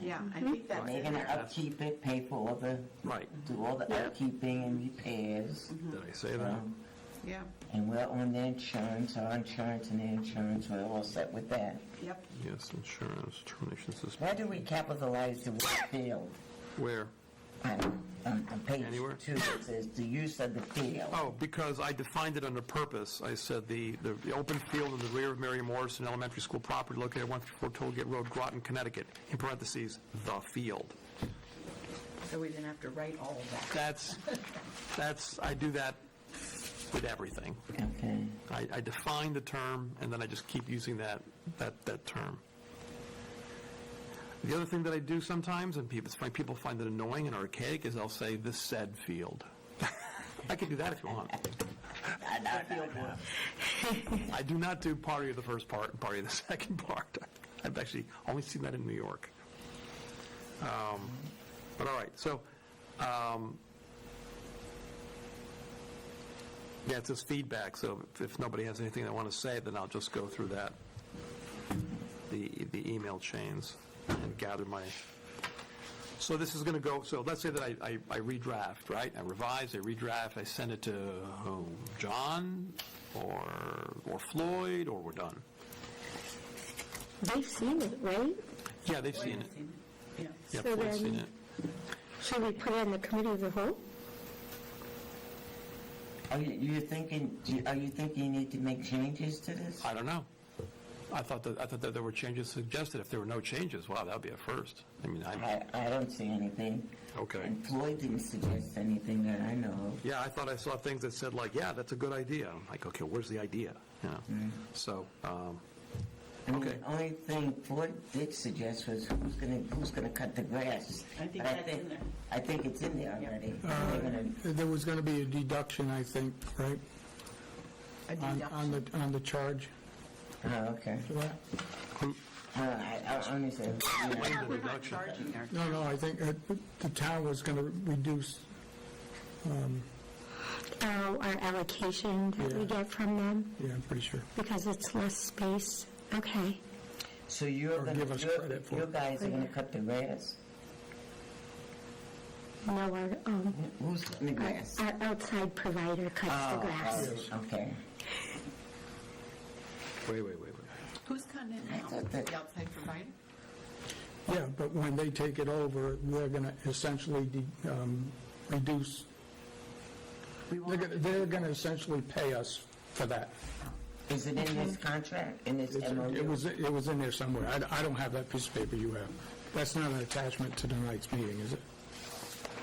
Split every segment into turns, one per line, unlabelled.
Yeah, I think that's.
They're gonna upkeep it, pay for all the,
Right.
do all the
Yeah.
upkeeping and repairs.
Did I say that?
Um,
Yeah,
And we're on the insurance, our insurance and the insurance, we're all set with that.
yep.
Yes, insurance, termination
Why
suspension.
do we capitalize the word field?
Where?
I don't- On on page
Anywhere?
two, it says the use of the field.
Oh, because I defined it under purpose. I said the, the the open field in the rear of Mary Morrison Elementary School property located at 154 Tollgate Road, Groton, Connecticut, in parentheses, "the field."
So we didn't have to write all of that.
That's, that's, I do that with everything.
Okay.
I, I define the term, and then I just keep using that, that, that term. The other thing that I do sometimes, and people, it's fine- people find it annoying and archaic, is I'll say the said field. I can do that if you want. I do not do party of the first part and party of the second part. I've actually only seen that in New York. Um, But all right, so, um, yeah, it's just feedback, so if- if nobody has anything they want to say, then I'll just go through that, the the email chains, and gather my, so this is going to go, so let's say that I I I redraft, right? I revise, I redraft, I send it to who? John, or or Floyd, or we're done.
They've seen it, right?
Yeah, they've seen it.
Yeah.
Yeah,
So
Floyd's seen
then-
it.
Should we put it on the committee of the whole?
Are you, you're thinking, do you- are you thinking you need to make changes to this?
I don't know. I thought that, I thought that there were changes suggested. If there were no changes, wow, that'd be a first. I mean, I,
I, I don't see anything.
okay.
And Floyd didn't suggest anything that I know of.
Yeah, I thought I saw things that said like, yeah, that's a good idea. I'm like, okay, where's the idea? You know? So, um,
I mean,
Okay.
the only thing Floyd did suggest was who's gonna, who's gonna cut the grass?
I think
But
that's in there.
I think it's in there
Yeah.
already.
Uh,
They're gonna-
There was going to be a deduction, I think, right?
A
On-
deduction.
On the, on the charge
Oh, okay.
for that?
Uh, I, I honestly, you know,
the
We're not
reduction.
charging there.
No, no, I think uh, the town was going to reduce,
Oh, our allocation that we
Yeah.
get from them
yeah, I'm pretty sure.
because it's less space? Okay.
so you're
Or
gonna,
give us
you're-
credit for
you
it.
guys are gonna cut the grass?
No, our, um,
Who's cutting the
our
grass?
our outside provider cuts
Ah,
the
Oh,
grass.
oh, Okay.
wait, wait, wait, wait.
Who's cutting it
I
now?
thought that-
The outside provider?
Yeah, but when they take it over, they're going to essentially de- um, reduce,
We
they're
won't
gonna- they're going to essentially pay us for that.
Is it in this contract, in this
It's- It
MOU?
was, it was in there somewhere. I I don't have that piece of paper you have. That's not an attachment to tonight's meeting, is it?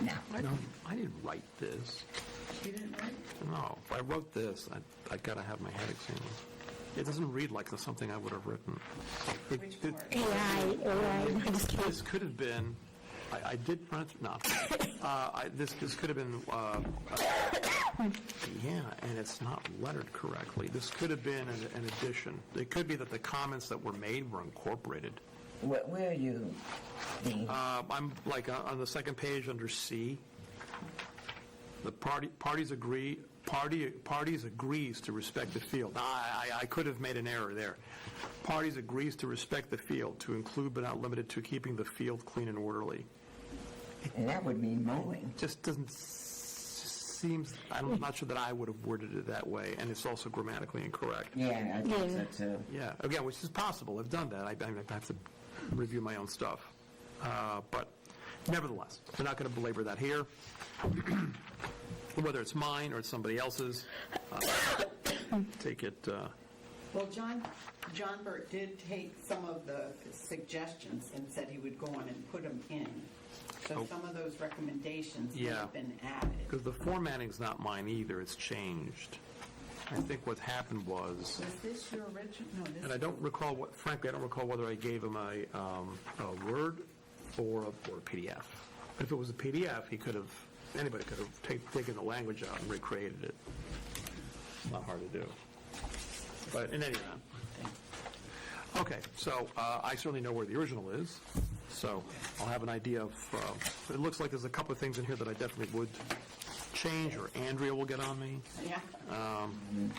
No.
I didn't, I didn't write this.
You didn't write?
No, if I wrote this, I, I gotta have my head examined. It doesn't read like the- something I would have written. It-
Which
it-
part?
AI, AI, I'm just kidding.
This could have been, I, I did print, no. Uh, I, this, this could have been, uh, uh, yeah, and it's not lettered correctly. This could have been an, an addition. It could be that the comments that were made were incorporated.
Where, where are you, Dean?
Uh, I'm like uh, on the second page under C. The party, parties agree, party, parties agrees to respect the field. Now, I, I- I could have made an error there. Parties agrees to respect the field, to include but not limited to keeping the field clean and orderly.
And that would mean mowing.
just doesn't, s- seems, I'm not sure that I would have worded it that way, and it's also grammatically incorrect.
Yeah, I think so
Yeah.
too.
Yeah, again, which is possible, I've done that, I I mean, I have to review my own stuff. Uh, But nevertheless, we're not going to belabor that here, whether it's mine or it's somebody else's. uh, Take it, uh,
Well, John, John Burt did take some of the suggestions and said he would go on and put them in. So
Oh.
some of those recommendations may
Yeah.
have been added.
because the formatting's not mine either, it's changed. I think what happened was...
Was this your original? No, this
And I don't recall what, frankly, I don't recall whether I gave him a, um, a Word or a, or a PDF. If it was a PDF, he could have, anybody could have ta- taken the language out and recreated it. It's not hard to do. But in any event. Okay, so, uh, I certainly know where the original is, so I'll have an idea of, uh, it looks like there's a couple of things in here that I definitely would change, or Andrea will get on me.
Yeah.
Um,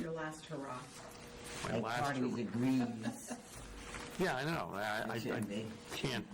Your last hurrah.
My
Like
last-
parties agrees.
Yeah, I know, I, I-
It shouldn't
I
be.
can't